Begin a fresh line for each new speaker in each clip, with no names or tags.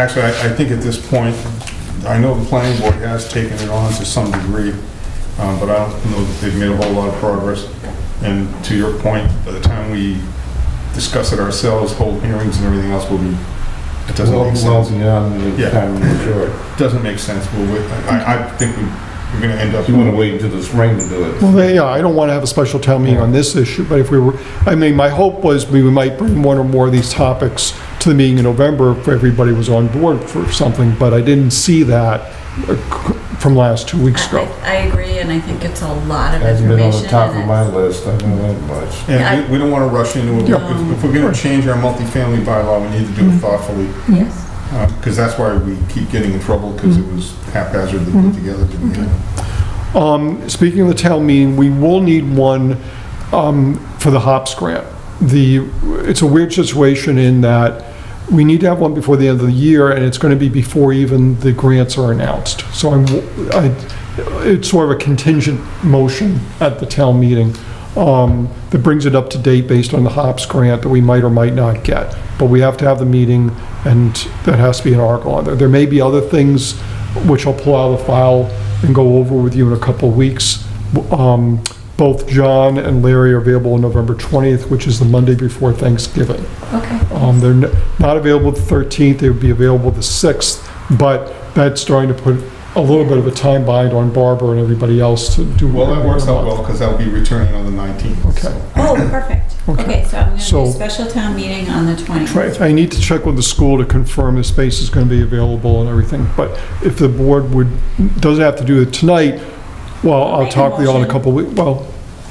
Actually, I, I think at this point, I know the planning board has taken it on to some degree, um, but I don't know that they've made a whole lot of progress. And to your point, by the time we discuss it ourselves, hold hearings and everything else will be, it doesn't
Well,
make sense.
Well, beyond
Yeah.
the time of maturity.
Doesn't make sense. We'll wait. I, I think we- we're gonna end up.
You want to wait until the spring to do it.
Well, they- yeah, I don't want to have a special town meeting on this issue, but if we were, I mean, my hope was we might bring one or more of these topics to the meeting in November if everybody was on board for something, but I didn't see that uh, c- from last two weeks
I
ago.
I agree, and I think it's a lot of
Hasn't been on the
information.
top of
and
my
it's-
list, I know that much.
And we, we don't wanna rush into it.
Yeah.
If if we're gonna change our multifamily bylaw, we need to do it thoughtfully.
Yes.
Because that's why we keep getting in trouble, because it was haphazardly put together to begin with.
Um, Speaking of the town meeting, we will need one um, for the HOPS grant. The, it's a weird situation in that we need to have one before the end of the year, and it's going to be before even the grants are announced. So I'm, I, it's sort of a contingent motion at the town meeting um, that brings it up to date based on the HOPS grant that we might or might not get. But we have to have the meeting, and that has to be an article on there. There may be other things which I'll pull out of the file and go over with you in a couple of weeks. Um, Both John and Larry are available on November 20th, which is the Monday before Thanksgiving.
Okay.
Um, They're n- not available the 13th, they would be available the 6th, but that's starting to put a little bit of a time bind on Barbara and everybody else to do.
Well, that works out
everything.
well, because I'll be returning on the 19th. so.
Okay.
Oh, perfect.
Okay.
Okay, so I'm going to do
So-
a special town meeting on the 20th.
Right, I need to check with the school to confirm the space is going to be available and everything, but if the board would, doesn't have to do it tonight, well, I'll
Make a
talk to you all in a
motion.
couple of weeks, well,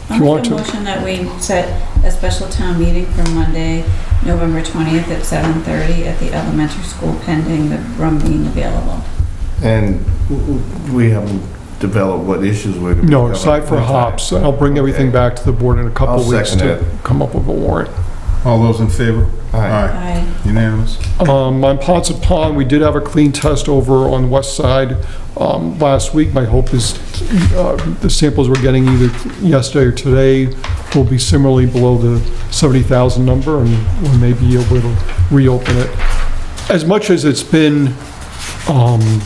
If
I'll
you want
make a
to.
motion that we set a special town meeting for Monday, November 20th at 7:30 at the elementary school pending the room being available.
And we haven't developed what issues we're going to be
No,
covering.
aside for hops, and I'll bring everything
Okay.
back to the board in a couple
I'll
of weeks
second
to come up with a warrant.
All those in favor?
All right.
Aye.
Unanimous?
Um, On Ponset Pond, we did have a clean test over on the west side um, last week. My hope is uh, the samples we're getting either yesterday or today will be similarly below the 70,000 number, and we may be able to reopen it. As much as it's been um,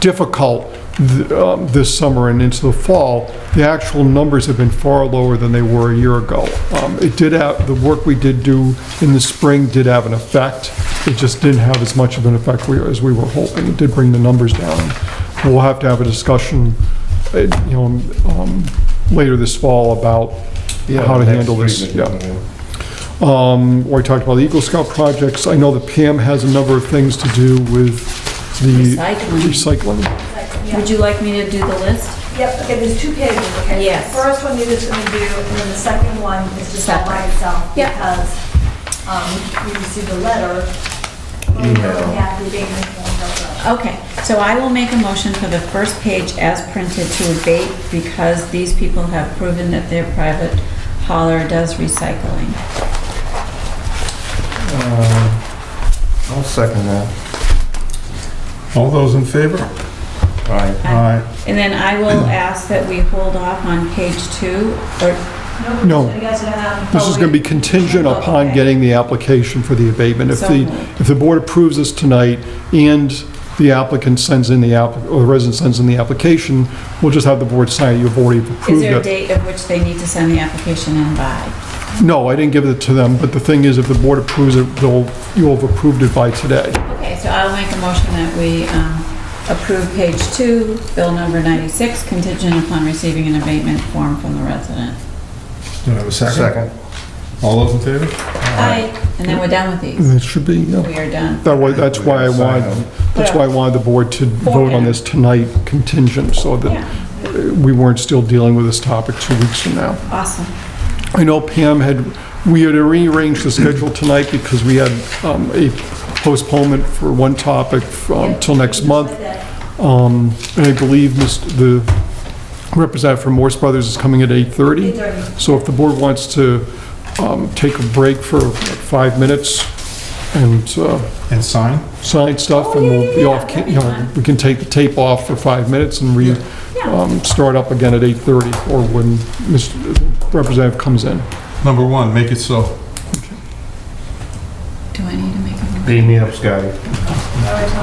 difficult th- um, this summer and into the fall, the actual numbers have been far lower than they were a year ago. Um, It did have, the work we did do in the spring did have an effect. It just didn't have as much of an effect we- as we were hoping. It did bring the numbers down. We'll have to have a discussion, uh, you know, um, later this fall about
Yeah,
how to
next
handle this,
week.
yeah. um, where we talked about the Eagle Scout projects. I know that Pam has a number of things to do with the
Recycling.
recycling.
Would you like me to do the list?
Yep, okay, there's two pages, okay?
Yes.
The First one you're just gonna do, and then the second one is just all by
Separate.
itself.
Yep.
Because, um, we received a letter. from
Email.
Yeah, the abatement form, uh,
Okay, so I will make a motion for the first page as printed to abate because these people have proven that their private hauler does recycling.
I'll second that.
All those in favor?
All right.
Aye.
And then I will ask that we hold off on page two, or,
No.
so you guys are gonna
um,
have-
Oh,
This is going to be contingent upon getting the application for the abatement. If the, if the board approves this tonight and the applicant sends in the app, or the resident sends in the application, we'll just have the board sign it, you've already
is
approved
there a
it.
date of which they need to send the application in by?
No, I didn't give it to them, but the thing is, if the board approves it, they'll, you'll have approved it by today.
Okay, so I'll make a motion that we um, approve page two, bill number 96, contingent upon receiving an abatement form from the resident.
Do I have a second?
Second.
All those in favor?
And then we're done with these.
It should be, yeah.
We are done.
That way, that's why I wanted, that's why I wanted the board to vote on this tonight contingent, so that
Yeah,
we weren't still dealing with this topic two weeks from now.
awesome.
I know Pam had, we had rearranged the schedule tonight because we had um, a postponement for one topic um, till next month. Um, And I believe Mr. the representative from Morse Brothers is coming at 8:30. So if the board wants to um, take a break for five minutes and uh,
And sign?
sign stuff, and we'll be off, ca- you know, we can take the tape off for five minutes and re, um, start up again at 8:30 or when Mr. Representative comes in.
Number one, make it so.
Do I need to make a motion?
Beat me up, Scotty.
Our town